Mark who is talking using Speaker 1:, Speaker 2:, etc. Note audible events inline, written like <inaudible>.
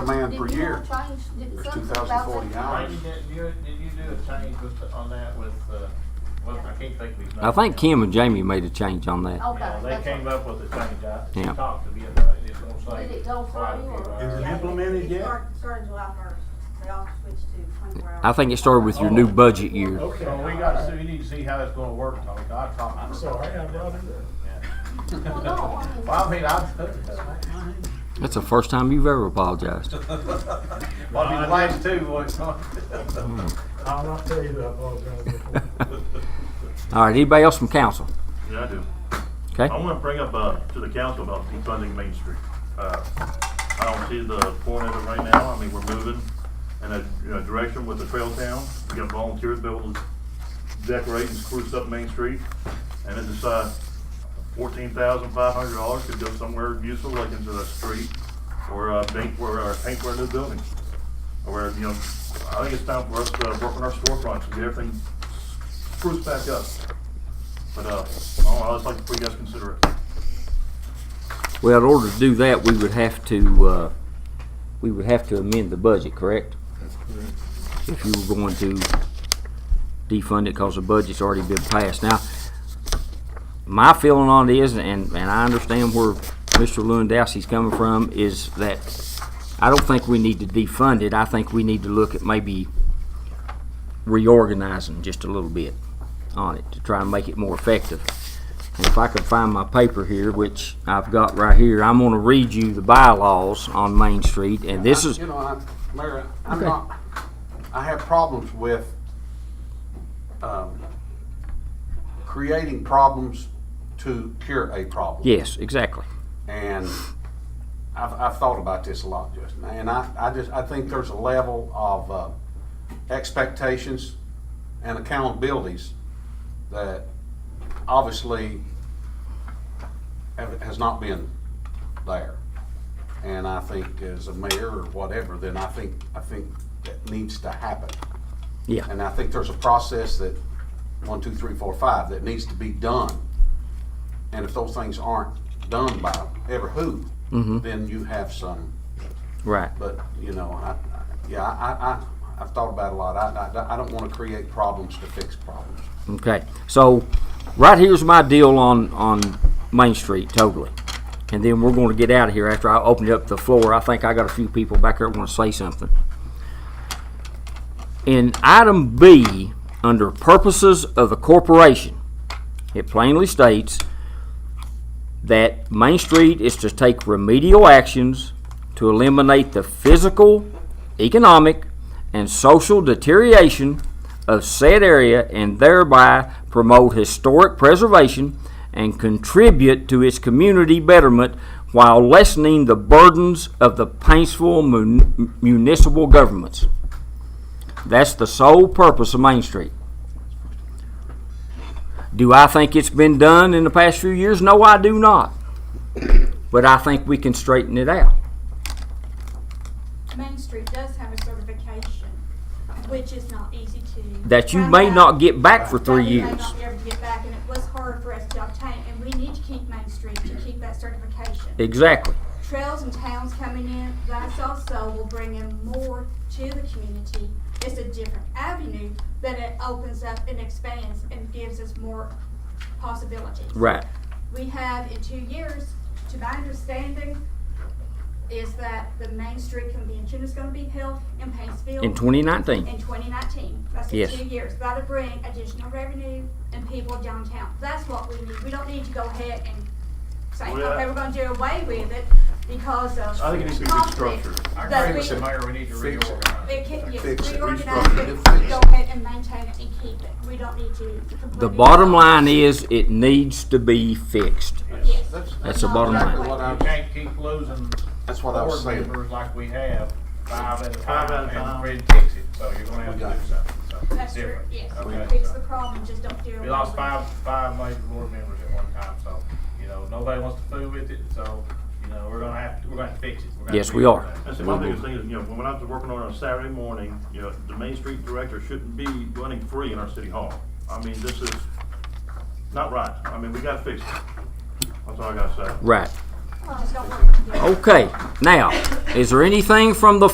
Speaker 1: did
Speaker 2: per
Speaker 1: you
Speaker 2: year.
Speaker 1: all change, did
Speaker 2: It's
Speaker 1: something
Speaker 2: 2,040
Speaker 1: about
Speaker 2: hours.
Speaker 1: that?
Speaker 3: Randy, did you, did you do a change with, on that with, uh, well, I can't think of his name.
Speaker 4: I think Kim and Jamie made a change on
Speaker 1: Okay,
Speaker 4: that.
Speaker 3: Yeah,
Speaker 1: that's
Speaker 3: they
Speaker 1: what-
Speaker 3: came up with a change, I
Speaker 4: Yeah.
Speaker 3: talked to them about it, it's gonna save
Speaker 1: Did it go through
Speaker 3: quite a few uh,
Speaker 1: or-
Speaker 3: hours.
Speaker 2: Is it implemented
Speaker 5: It
Speaker 2: yet?
Speaker 5: start- Started July first, they all switched to twenty-four hours.
Speaker 4: I think it started with your new budget year.
Speaker 6: Okay.
Speaker 3: So we got, to- we need to see how it's gonna work, Tommy, I talked.
Speaker 6: I'm sorry, I brought it up.
Speaker 1: Well, no, I mean-
Speaker 3: Well, I <laughs> mean, I, well,
Speaker 4: That's the first time you've ever apologized.
Speaker 3: I mean, the last two, boys,
Speaker 6: I'll not tell you that I apologize before.
Speaker 4: All right, anybody else from council?
Speaker 7: Yeah, I do.
Speaker 4: Okay.
Speaker 7: I want to bring up, uh, to the council about defunding Main Street. Uh, I don't see the point of it right now. I mean, we're moving in a, you know, direction with the trail town. We got volunteers building, decorate and spruce up Main Street. And it's just, uh, fourteen thousand five hundred dollars could go somewhere useful, like into the street or, uh, paint, or, or paint for a new building. Or, you know, I think it's time for us to work on our storefronts and get everything spruced back up. But, uh, I'd just like for you guys to consider it.
Speaker 4: Well, in order to do that, we would have to, uh, we would have to amend the budget, correct? If you were going to defund it because the budget's already been passed. Now, my feeling on it is, and, and I understand where Mr. Lewandowski's coming from, is that I don't think we need to defund it. I think we need to look at maybe reorganizing just a little bit on it to try and make it more effective. And if I could find my paper here, which I've got right here, I'm gonna read you the bylaws on Main Street, and this is,
Speaker 2: You know, I'm, Mayor, I'm
Speaker 4: Okay.
Speaker 2: not, I have problems with, um, creating problems to cure a problem.
Speaker 4: yes, exactly.
Speaker 2: And I've, I've thought about this a lot, Justin, and I, I just, I think there's a level of, uh, expectations and accountabilities that obviously have, has not been there. And I think as a mayor or whatever, then I think, I think that needs to happen.
Speaker 4: Yeah.
Speaker 2: And I think there's a process that, one, two, three, four, five, that needs to be done. And if those things aren't done by ever who, then you have some,
Speaker 4: Right.
Speaker 2: but, you know, I, I- yeah, I, I, I've thought about it a lot. I, I, I don't wanna create problems to fix problems.
Speaker 4: Okay, so right here's my deal on, on Main Street totally. And then we're gonna get out of here after I open up the floor. I think I got a few people back there wanna say something. In item B, under purposes of the corporation, it plainly states that Main Street is to take remedial actions to eliminate the physical, economic, and social deterioration of said area and thereby promote historic preservation and contribute to its community betterment while lessening the burdens of the Paintsville mun- municipal governments. That's the sole purpose of Main Street. Do I think it's been done in the past few years? No, I do not. But I think we can straighten it out.
Speaker 8: Main Street does have a certification, which is not easy to.
Speaker 4: That you
Speaker 8: find
Speaker 4: may
Speaker 8: out.
Speaker 4: not get back for
Speaker 8: That
Speaker 4: three
Speaker 8: we may
Speaker 4: years.
Speaker 8: not be able to get back, and it was hard for us to obtain, and we need to keep Main Street to keep that certification.
Speaker 4: Exactly.
Speaker 8: Trails and towns coming in, that's also will bring in more to the community. It's a different avenue, but it opens up and expands and gives us more possibilities.
Speaker 4: Right.
Speaker 8: We have in two years, to my understanding, is that the Main Street Convention is gonna be held in Paintsville.
Speaker 4: In 2019.
Speaker 8: In twenty nineteen, that's in
Speaker 4: Yes.
Speaker 8: two years, that'll bring additional revenue and people downtown, that's what we need, we don't need to go ahead and say,
Speaker 7: Well, yeah.
Speaker 8: okay, we're gonna do away with it because of.
Speaker 7: I think it needs to be
Speaker 8: conflict."
Speaker 7: restructured.
Speaker 3: I
Speaker 8: That
Speaker 3: agree with
Speaker 8: we-
Speaker 3: the mayor, we need to
Speaker 2: Fix it.
Speaker 3: reorganize.
Speaker 8: It can, yes,
Speaker 2: Fix it,
Speaker 8: reorganize
Speaker 2: restructure
Speaker 8: it,
Speaker 2: it, fix
Speaker 8: go
Speaker 2: it.
Speaker 8: ahead and maintain it and keep it, we don't need to.
Speaker 4: The
Speaker 8: completely-
Speaker 4: bottom line is it needs to be fixed.
Speaker 8: Yes.
Speaker 4: That's the bottom
Speaker 2: exactly
Speaker 4: line.
Speaker 2: what I
Speaker 3: You
Speaker 2: was-
Speaker 3: can't keep losing
Speaker 2: That's what I was
Speaker 3: board
Speaker 2: saying.
Speaker 3: members like we have, five at a
Speaker 7: Five at a
Speaker 3: time, and
Speaker 7: time.
Speaker 3: Fred takes it, so you're gonna have
Speaker 2: got
Speaker 3: to
Speaker 2: it.
Speaker 3: do something, so.
Speaker 8: That's true,
Speaker 3: different.
Speaker 8: yes,
Speaker 3: Okay,
Speaker 8: fix
Speaker 3: so.
Speaker 8: the problem, just don't do away with it.
Speaker 3: We lost five, five major board members at one time, so, you know, nobody wants to fool with it, so, you know, we're gonna have, to we're gonna have to fix it. We're gonna
Speaker 4: Yes,
Speaker 3: have to
Speaker 4: we
Speaker 3: fix
Speaker 4: are.
Speaker 3: it.
Speaker 7: That's my biggest thing is, you know, when I was working on it on Saturday morning, you know, the Main Street Director shouldn't be running free in our city hall. I mean, this is not right. I mean, we gotta fix it. That's all I gotta say.
Speaker 4: Right.
Speaker 8: Just don't work.
Speaker 4: Okay, now, is there anything from the